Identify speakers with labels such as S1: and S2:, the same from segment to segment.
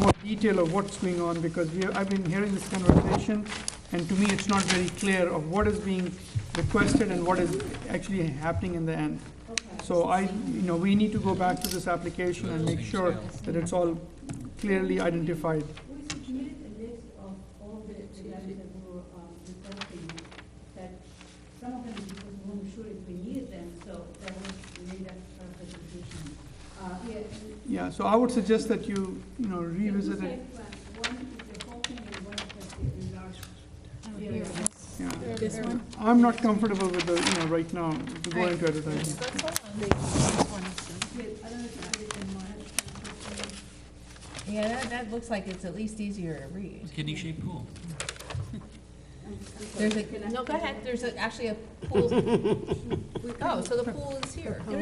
S1: more detail of what's going on, because we, I've been hearing this conversation, and to me, it's not very clear of what is being requested and what is actually happening in the end. So I, you know, we need to go back to this application and make sure that it's all clearly identified.
S2: We submitted a list of all the events that were um, requesting, that some of them because we weren't sure if we needed them, so that was made as part of the decision. Uh, yeah.
S1: Yeah, so I would suggest that you, you know, revisit it,
S2: uh, One is the whole thing and one is the large.
S3: Here.
S1: yeah.
S3: This one?
S1: I'm not comfortable with the, you know, right now, to go into advertising.
S2: Yes, I don't know if you understand mine.
S3: Yeah, that, that looks like it's at least easier to read.
S4: Kidney shaped pool.
S2: I'm- I'm sorry.
S3: There's a, no, go ahead, there's a- actually a pool. Oh, so the pool is here.
S4: The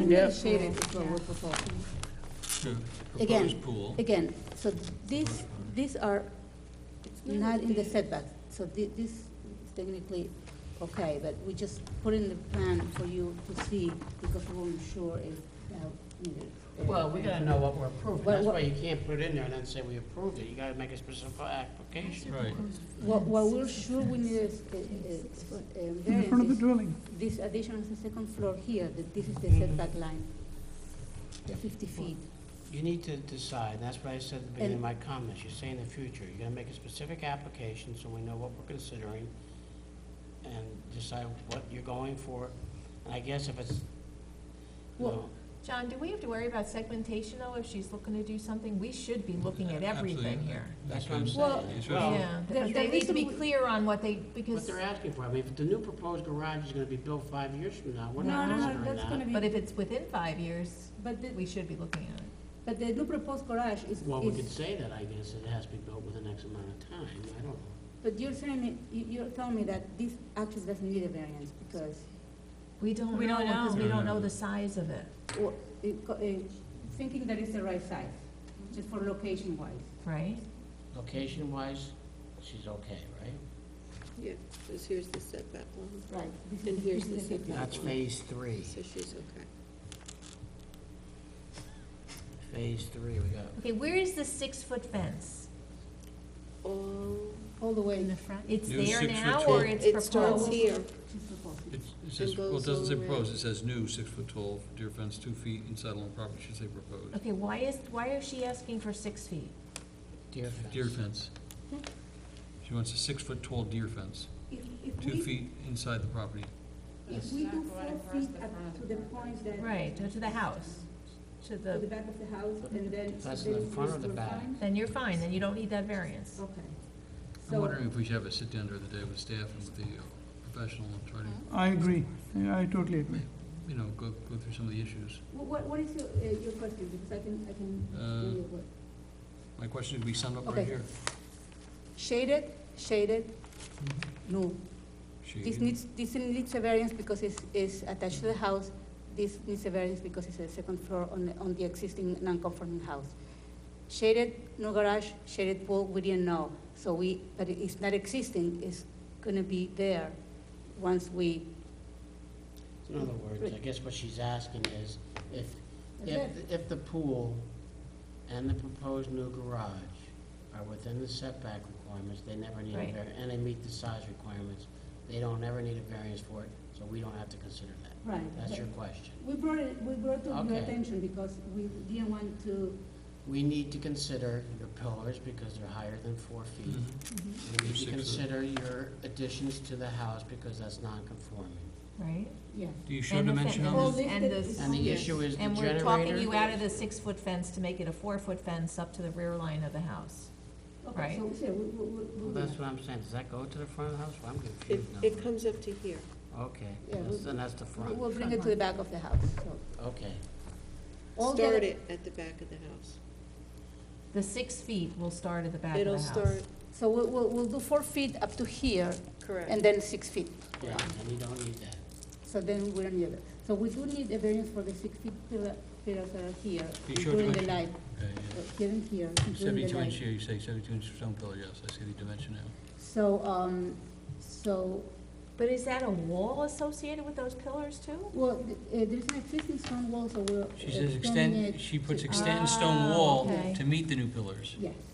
S2: Again.
S4: Proposed pool.
S2: Again, so these, these are not in the setback, so thi- this is technically okay, but we just put in the plan for you to see because we weren't sure if that needed. uh,
S5: Well, we gotta know what we're approving,
S2: Well,
S5: that's
S2: what-
S5: why you can't put it in there and then say we approved it, you gotta make a specific application.
S4: Right.
S2: What, what we're sure we need is uh, uh, uh,
S1: In front of the
S2: variance, is
S1: dwelling.
S2: this addition on the second floor here, that this is the
S5: Mhm.
S2: setback line, the fifty feet.
S5: You need to decide, that's what I said at the beginning of
S2: And-
S5: my comments, you say in the future, you're gonna make a specific application so we know what we're considering and decide what you're going for, and I guess if it's,
S3: Well-
S5: well,
S3: John, do we have to worry about segmentation though, if she's looking to do something? We should be looking at everything
S4: Absolutely.
S3: here.
S5: that's what I'm
S2: Well,
S5: saying.
S4: It's
S5: Well,
S4: really-
S3: Yeah,
S2: The-
S3: but
S2: the
S3: they need to
S2: reason
S3: be
S2: we-
S3: clear on what they,
S5: What
S3: because,
S5: they're asking for, I mean, if the new proposed garage is gonna be built five years from now, we're not
S2: No, no, no,
S5: considering
S2: that's gonna
S5: that.
S2: be-
S3: but if it's within five years,
S2: But the,
S3: we should be looking at it.
S2: but the new proposed garage is,
S5: Well, we
S2: is-
S5: could say that, I guess, it has to be built within X amount of time, I don't know.
S2: But you're saying, it- you, you're telling me that this actually doesn't need a variance because,
S3: We don't know,
S6: We don't
S3: because
S4: know.
S3: we
S4: No,
S3: don't
S4: no,
S3: know
S4: no.
S3: the size of it.
S2: or, it co- eh, thinking that it's the right size, just for location wise.
S3: Right?
S5: Location-wise, she's okay, right?
S6: Yeah, because here's the setback line,
S2: Right.
S6: and here's the
S5: That's
S6: setback line.
S5: phase three.
S6: So she's okay.
S5: Phase three, we got,
S3: Okay, where is the six-foot fence?
S6: All,
S2: All the way.
S3: the front? It's
S4: New
S3: there
S4: six-foot
S3: now,
S4: tall.
S3: or it's
S6: it starts
S3: proposed?
S6: here.
S2: It's proposed.
S4: It's- It says, well, it doesn't say proposed, it says new, six foot tall, deer fence, two feet inside along property, should say proposed.
S3: Okay, why is, why is she asking for six feet?
S5: deer fence.
S4: Deer fence. She wants a six foot tall deer fence,
S2: If, if
S4: two
S2: we,
S4: feet inside the property.
S2: if we do four feet up to the point that.
S3: Right, to to the house, to
S2: To the
S3: the,
S2: back of the house and then.
S5: That's
S2: then
S5: the front or
S2: we're
S5: the back?
S2: fine?
S3: then you're fine, then you don't need that variance.
S2: Okay.
S4: I'm
S2: So,
S4: wondering if we should have a sit down during the day with staff and with the uh, professional and try to,
S2: Uh-huh.
S1: I agree, I totally agree.
S4: you know, go, go through some of the issues.
S2: wh- what, what is your, eh, your question, because I can, I can.
S4: Uh,
S2: do what-
S4: My question is, we summed up
S2: Okay.
S4: right here.
S2: Shaded, shaded,
S5: Mm-hmm.
S2: no. This
S4: Shaded.
S2: needs, this needs a variance because it's, it's attached to the house. This needs a variance because it's a second floor on, the- on the existing non-conforming house. Shaded, no garage, shaded pool, we didn't know. So we, but it's not existing, it's gonna be there once we,
S5: In other words, I guess what she's asking is, if, if, if the pool and the proposed new garage are within the setback requirements, they never need a
S3: Right.
S5: var, and they meet the size requirements, they don't ever need a variance for it, so we don't have to consider that.
S2: right.
S5: That's your question.
S2: We brought it, we brought to your
S5: Okay.
S2: attention because we didn't want to,
S5: We need to consider your pillars, because they're higher than four feet.
S4: Mhm.
S5: We need to
S4: Six of-
S5: consider your additions to the house, because that's non-conforming.
S3: Right?
S2: yeah.
S4: Do you show
S3: And the fe-
S4: dimension
S3: and
S4: on
S2: Well,
S4: this?
S3: the- and the-
S2: lifted
S5: And the
S2: Yes.
S5: issue is the
S3: And
S5: generator.
S3: we're talking you out of the six-foot fence to make it a four-foot fence up to the rear line of the house.
S2: Okay, so, so we, we, we. we-
S5: Well, that's what I'm saying, does that go to the front of the house? Well, I'm
S6: It,
S5: confused now.
S6: it comes up to here.
S5: Okay,
S2: Yeah,
S5: that's-
S2: we-
S5: then that's the front,
S2: We'll bring it to the back of the house, so.
S5: okay.
S2: all the-
S6: Start it at the back of the house.
S3: The six feet will start at the back of the
S6: It'll
S3: house.
S6: start,
S2: So we'll, we'll, we'll do four feet up to here, and
S6: correct.
S2: then six feet.
S5: Yeah, and you don't need that.
S2: So then we don't need it. So we do need a variance for the six feet pillar, pillars that are here,
S4: Be sure to
S2: including the light,
S4: mention- Yeah, yeah.
S2: uh, here and here, including the
S4: Seventy-two inch,
S2: light.
S4: yeah, you say seventy-two inch stone pillar, yes, I see the dimension now.
S2: So, um, so,
S3: But is that a wall associated with those pillars too?
S2: well, th- uh, there's an existing stone wall, so we're
S4: She says
S2: extending
S4: extend,
S2: it.
S4: she puts
S2: to-
S3: extend
S4: extend
S3: stone
S4: stone
S3: Ah, wall
S4: wall
S3: okay.
S4: to meet the new pillars.
S2: Yes,